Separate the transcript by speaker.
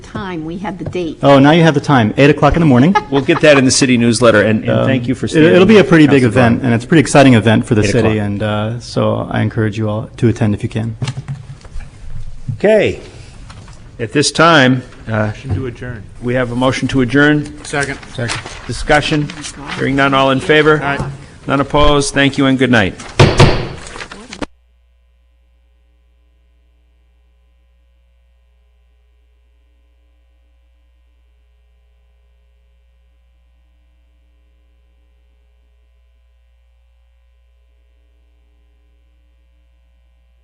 Speaker 1: time, we had the date.
Speaker 2: Oh, now you have the time, 8 o'clock in the morning.
Speaker 3: We'll get that in the city newsletter, and, and
Speaker 2: Um,
Speaker 3: thank you for
Speaker 2: it-
Speaker 3: standing.
Speaker 2: It'll be a pretty big
Speaker 3: Councilor Barnes.
Speaker 2: event, and it's a pretty exciting event for the
Speaker 3: 8
Speaker 2: city,
Speaker 3: o'clock.
Speaker 2: and uh, so I encourage you all to attend if you can.
Speaker 3: Okay. At this time, uh,
Speaker 4: to adjourn.
Speaker 3: we have a motion to adjourn.
Speaker 4: Second. Second.
Speaker 3: Discussion. Hearing none, all in favor?
Speaker 4: Aye.
Speaker 3: None opposed. Thank you and good night.